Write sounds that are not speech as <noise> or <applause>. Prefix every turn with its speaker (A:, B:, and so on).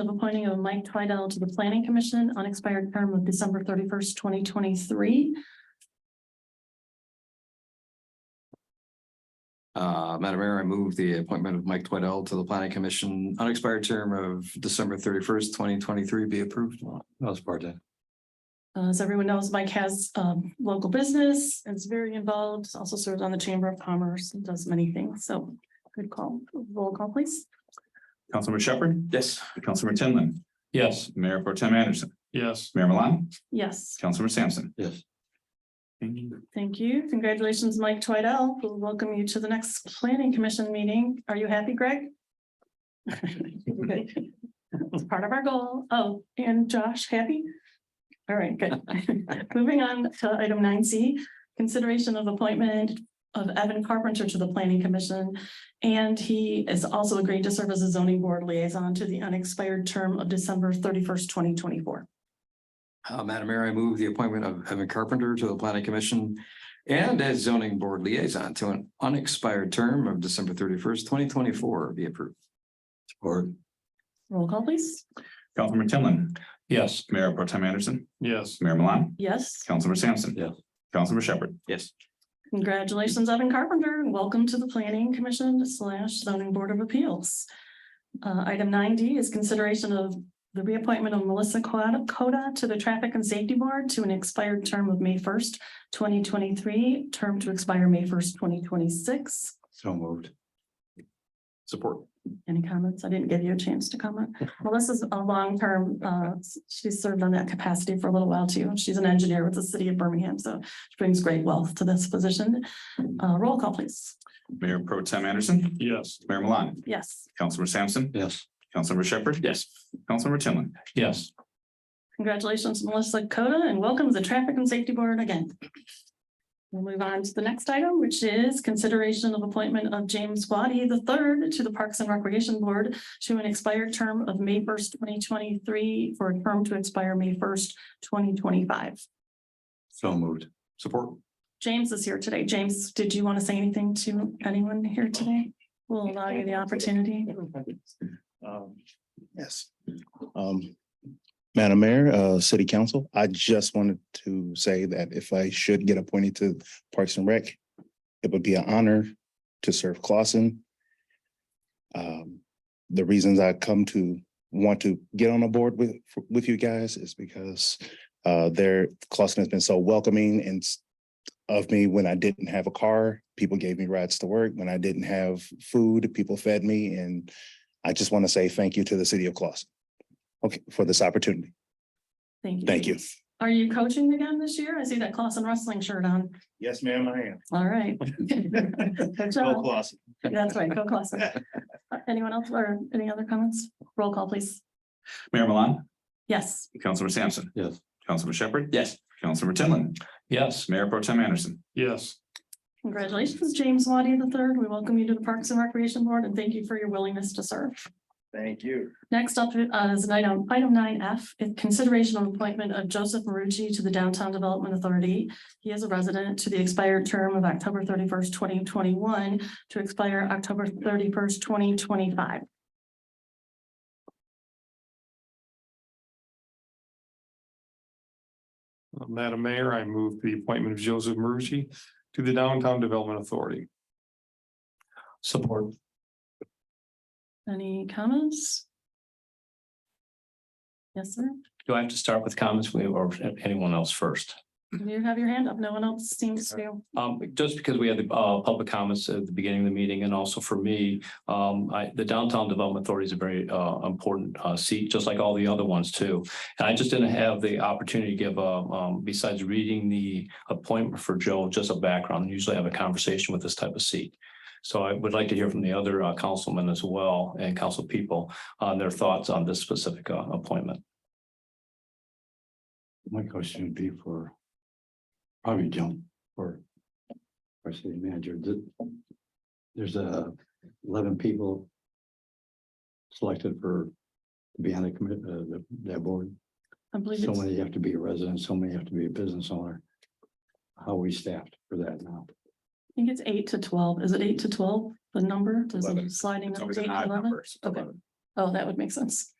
A: of appointing of Mike Twidell to the Planning Commission on expired term of December thirty-first, twenty twenty-three.
B: Uh, Madam Mayor, I move the appointment of Mike Twidell to the Planning Commission, unexpired term of December thirty-first, twenty twenty-three be approved.
C: I'll support that.
A: Uh, as everyone knows, Mike has, um, local business and is very involved, also serves on the Chamber of Commerce and does many things, so good call. Roll call, please.
D: Councilmember Shepherd,
C: Yes.
D: Councilmember Tinlin,
C: Yes.
D: Mayor Pro Tem Anderson,
C: Yes.
D: Mayor Milan,
A: Yes,
D: Councilmember Sampson.
C: Yes.
A: thank you. Congratulations, Mike Twidell. We'll welcome you to the next Planning Commission meeting. Are you happy, Greg? Good. It's part of our goal. Oh, and Josh, happy? All right, good. Moving on to item nine C, consideration of appointment of Evan Carpenter to the Planning Commission. And he has also agreed to serve as a zoning board liaison to the unexpired term of December thirty-first, twenty twenty-four.
B: Uh, Madam Mayor, I move the appointment of Evan Carpenter to the Planning Commission and as zoning board liaison to an unexpired term of December thirty-first, twenty twenty-four be approved.
C: Support.
A: Roll call, please.
D: Councilmember Tinlin,
C: Yes.
D: Mayor Pro Tem Anderson,
C: Yes.
D: Mayor Milan,
A: Yes,
D: Councilmember Sampson.
C: Yes.
D: Councilmember Shepherd.
B: Yes.
A: congratulations, Evan Carpenter, and welcome to the Planning Commission slash Zoning Board of Appeals. Uh, item nine D is consideration of the reappointment of Melissa Coda Coda to the Traffic and Safety Board to an expired term of May first, twenty twenty-three, term to expire May first, twenty twenty-six.
C: So moved.
B: Support.
A: Any comments? I didn't give you a chance to comment. Melissa's a long-term, uh, she's served on that capacity for a little while too. She's an engineer with the city of Birmingham, so she brings great wealth to this position. Uh, roll call, please.
D: Mayor Pro Tem Anderson,
C: Yes.
D: Mayor Milan,
A: Yes,
D: Councilmember Sampson,
C: Yes.
D: Councilmember Shepherd. Yes. Councilmember Tinlin.
C: Yes.
A: congratulations, Melissa Coda, and welcome to the Traffic and Safety Board again. We'll move on to the next item, which is consideration of appointment of James Waddy III to the Parks and Recreation Board to an expired term of May first, twenty twenty-three, for a term to expire May first, twenty twenty-five.
C: So moved.
B: Support.
A: James is here today. James, did you want to say anything to anyone here today? We'll allow you the opportunity.
E: Um, Yes. Um, Madam Mayor, uh, City Council, I just wanted to say that if I should get appointed to Parks and Rec, it would be an honor to serve Clausen. Um, the reasons I come to want to get on a board with, with you guys is because uh, their Clausen has been so welcoming and s- of me when I didn't have a car, people gave me rides to work. When I didn't have food, people fed me and I just want to say thank you to the city of Clausen. Okay, for this opportunity.
A: Thank you.
E: Thank you.
A: Are you coaching again this year? I see that Clausen wrestling shirt on.
E: Yes, ma'am, I
A: All
E: <laughs>
A: right. Good job.
E: Clausen.
A: That's right,
E: <laughs>
A: go Clausen. Uh, Anyone else or any other comments? Roll call, please.
D: Mayor Milan,
A: Yes,
D: Councilmember Sampson.
C: Yes.
D: Councilmember Shepherd.
B: Yes.
D: Councilmember Tinlin,
C: Yes.
D: Mayor Pro Tem Anderson.
C: Yes.
A: congratulations, James Waddy III. We welcome you to the Parks and Recreation Board and thank you for your willingness to serve.
E: Thank you.
A: Next up uh, is an item, item nine F, consideration of appointment of Joseph Marucci to the Downtown Development Authority. He is a resident to the expired term of October thirty-first, twenty twenty-one to expire October thirty-first, twenty twenty-five.
F: Uh, Madam Mayor, I move the appointment of Joseph Marucci to the Downtown Development Authority.
C: Support.
A: Any comments? Yes, sir.
C: Do I have to start with comments we- or anyone else first?
A: You have your hand up. No one else seems to.
C: Um, just because we had the, uh, public comments at the beginning of the meeting and also for me, um, I, the Downtown Development Authority is a very, uh, important, uh, seat, just like all the other ones too. And I just didn't have the opportunity to give, uh, um, besides reading the appointment for Joe, just a background, usually I have a conversation with this type of seat. So I would like to hear from the other, uh, councilmen as well and council people on their thoughts on this specific, uh, appointment.
G: My question would be for probably Joan or our city manager. Th- There's a eleven people selected for to be on the commit, uh, the- that board.
A: I believe
G: So
A: it's,
G: many have to be a resident, so many have to be a business owner. How are we staffed for that now?
A: I think it's eight to twelve. Is it eight to twelve? The number, there's a
D: Eleven.
A: sliding
D: It's
A: number,
D: always
A: eight
D: an odd
A: to eleven.
D: number. so
A: Okay. Oh, that would make sense.